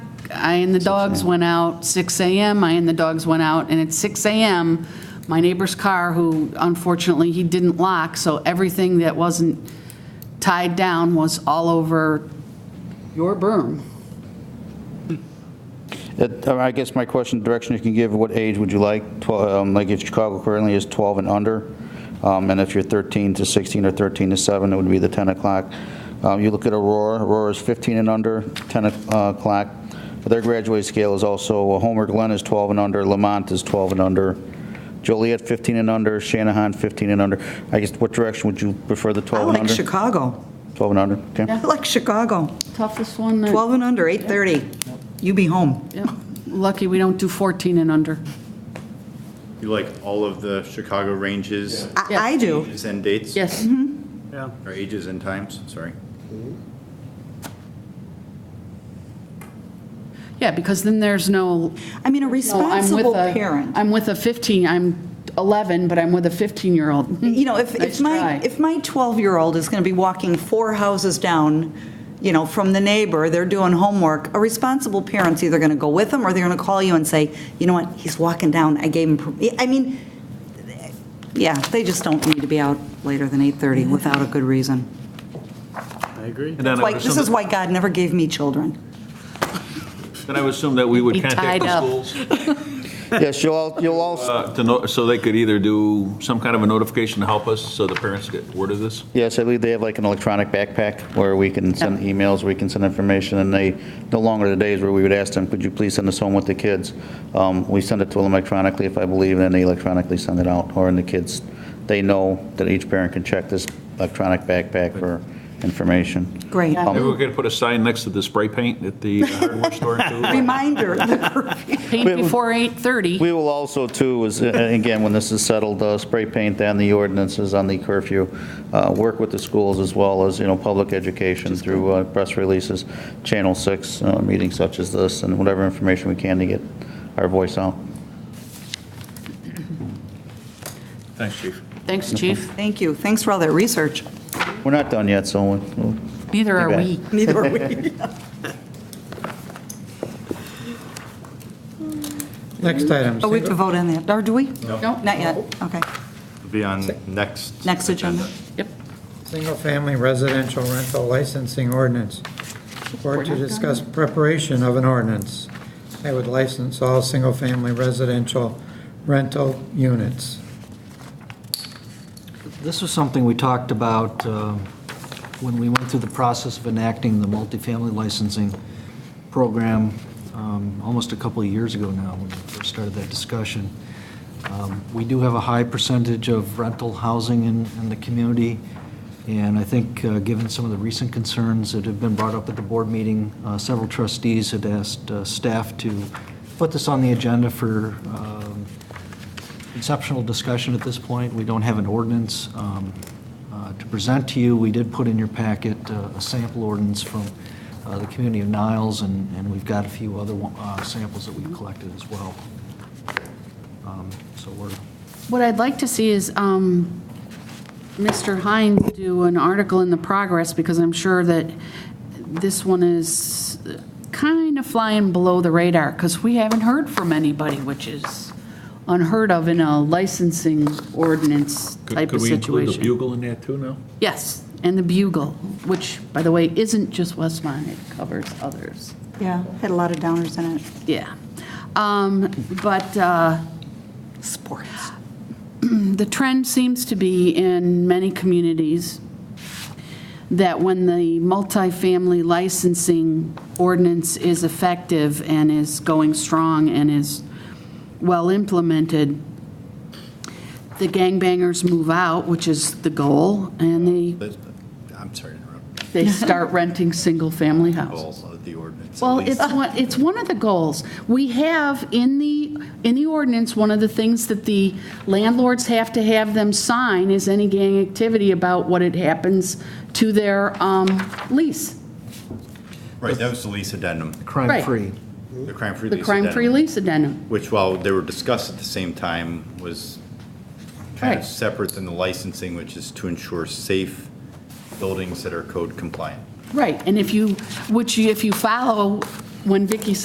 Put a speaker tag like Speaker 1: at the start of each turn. Speaker 1: I and the dogs went out 6 AM, I and the dogs went out, and at 6 AM, my neighbor's car, who unfortunately, he didn't lock, so everything that wasn't tied down was all over your berm.
Speaker 2: That- I guess my question, direction you can give, what age would you like? Twelve, um, Like if Chicago currently is 12 and under, um, and if you're 13 to 16 or 13 to 7, it would be the 10 o'clock. Um, You look at Aurora, Aurora is 15 and under, 10 o'clock. Their graduate scale is also, uh, Homer Glen is 12 and under, Lamont is 12 and under, Joliet 15 and under, Shanahan 15 and under. I guess what direction would you prefer the
Speaker 3: I
Speaker 2: 12 and
Speaker 3: like
Speaker 2: under?
Speaker 3: Chicago.
Speaker 2: 12 and under, okay.
Speaker 3: I like Chicago.
Speaker 1: Toughest one, that-
Speaker 3: 12 and under, 8:30. You be home.
Speaker 1: Yep. lucky we don't do 14 and under.
Speaker 4: You like all of the Chicago ranges?
Speaker 3: I I do.
Speaker 4: Ages and dates?
Speaker 1: Yes,
Speaker 2: Mm-hmm.
Speaker 4: Or ages and times, sorry.
Speaker 1: yeah, because then there's no,
Speaker 3: I mean,
Speaker 1: no,
Speaker 3: a
Speaker 1: I'm with
Speaker 3: responsible
Speaker 1: a,
Speaker 3: parent.
Speaker 1: I'm with a 15, I'm 11, but I'm with a 15-year-old.
Speaker 3: You know, if,
Speaker 1: Nice
Speaker 3: if my,
Speaker 1: try.
Speaker 3: if my 12-year-old is going to be walking four houses down, you know, from the neighbor, they're doing homework, a responsible parent's either going to go with them or they're going to call you and say, you know what, he's walking down, I gave him, per-" I mean, yeah, they just don't need to be out later than 8:30 without a good reason.
Speaker 5: I agree.
Speaker 6: And then I
Speaker 3: Like,
Speaker 6: would
Speaker 3: this is
Speaker 6: assume,
Speaker 3: why God never gave me children.
Speaker 6: then I would assume that we would
Speaker 1: Be tied
Speaker 6: contact the
Speaker 1: up.
Speaker 6: schools
Speaker 2: Yes, you'll all, you'll all
Speaker 6: uh, to know, so they could either do some kind of a notification to help us, so the parents get word of this.
Speaker 2: Yes, I believe they have like an electronic backpack where we can send emails, we can send information, and they, no longer the days where we would ask them, could you please send this home with the kids? Um, We send it to them electronically, if I believe, and then they electronically send it out, or in the kids, they know that each parent can check this electronic backpack for information. Um,
Speaker 3: Great.
Speaker 6: Maybe we could put a sign next to the spray paint at the hardware store too.
Speaker 3: Reminder, the
Speaker 1: Paint before 8:30.
Speaker 2: We will also, too, is, uh, again, when this is settled, uh, spray paint and the ordinances on the curfew, uh, work with the schools as well as, you know, public education through uh, press releases, Channel 6, uh, meetings such as this, and whatever information we can to get our voice out.
Speaker 6: Thanks, chief.
Speaker 1: Thanks, chief.
Speaker 3: Thank you. Thanks for all that research.
Speaker 2: We're not done yet, so we'll-
Speaker 1: Neither are
Speaker 2: You bet.
Speaker 1: we.
Speaker 3: Neither are we.
Speaker 5: Next item.
Speaker 3: Oh, we have to vote on that, or do we?
Speaker 1: Nope.
Speaker 3: Not yet, okay.
Speaker 4: Be on next.
Speaker 3: Next agenda.
Speaker 1: Yep.
Speaker 5: Single-family residential rental licensing ordinance. Board to discuss preparation of an ordinance that would license all single-family residential rental units.
Speaker 7: This was something we talked about um, when we went through the process of enacting the multifamily licensing program um, almost a couple of years ago now, when we first started that discussion. Um, We do have a high percentage of rental housing in, in the community, and I think, uh, given some of the recent concerns that have been brought up at the board meeting, uh, several trustees had asked uh, staff to put this on the agenda for um, conceptual discussion at this point. We don't have an ordinance um, uh, to present to you. We did put in your packet uh, a sample ordinance from uh, the community of Niles, and and we've got a few other uh, samples that we've collected as well. Um, So we're,
Speaker 1: What I'd like to see is um, Mr. Hines do an article in the progress, because I'm sure that this one is kind of flying below the radar, because we haven't heard from anybody, which is unheard of in a licensing ordinance type of
Speaker 6: Could we include the
Speaker 1: situation.
Speaker 6: bugle in that too now?
Speaker 1: Yes, and the Bugle, which, by the way, isn't just Westmont, it covers others.
Speaker 3: Yeah, had a lot of downers in it.
Speaker 1: Yeah. Um, But uh,
Speaker 3: Sports.
Speaker 1: the trend seems to be in many communities that when the multifamily licensing ordinance is effective and is going strong and is well implemented, the gangbangers move out, which is the goal, and they,
Speaker 4: But- I'm sorry to interrupt.
Speaker 1: they start renting single-family houses.
Speaker 4: All of the ordinance. at
Speaker 1: Well,
Speaker 4: least.
Speaker 1: it's one, it's one of the goals. We have in the, in the ordinance, one of the things that the landlords have to have them sign is any gang activity about what it happens to their um, lease,
Speaker 4: Right, that was the lease addendum,
Speaker 1: Right.
Speaker 7: crime-free.
Speaker 4: the crime-free
Speaker 1: the
Speaker 4: lease
Speaker 1: crime-free
Speaker 4: addendum.
Speaker 1: lease addendum.
Speaker 4: Which while they were discussed at the same time was kind
Speaker 1: Right.
Speaker 4: of separate than the licensing, which is to ensure safe buildings that are code compliant.
Speaker 1: Right, and if you, which you- if you follow, when Vicky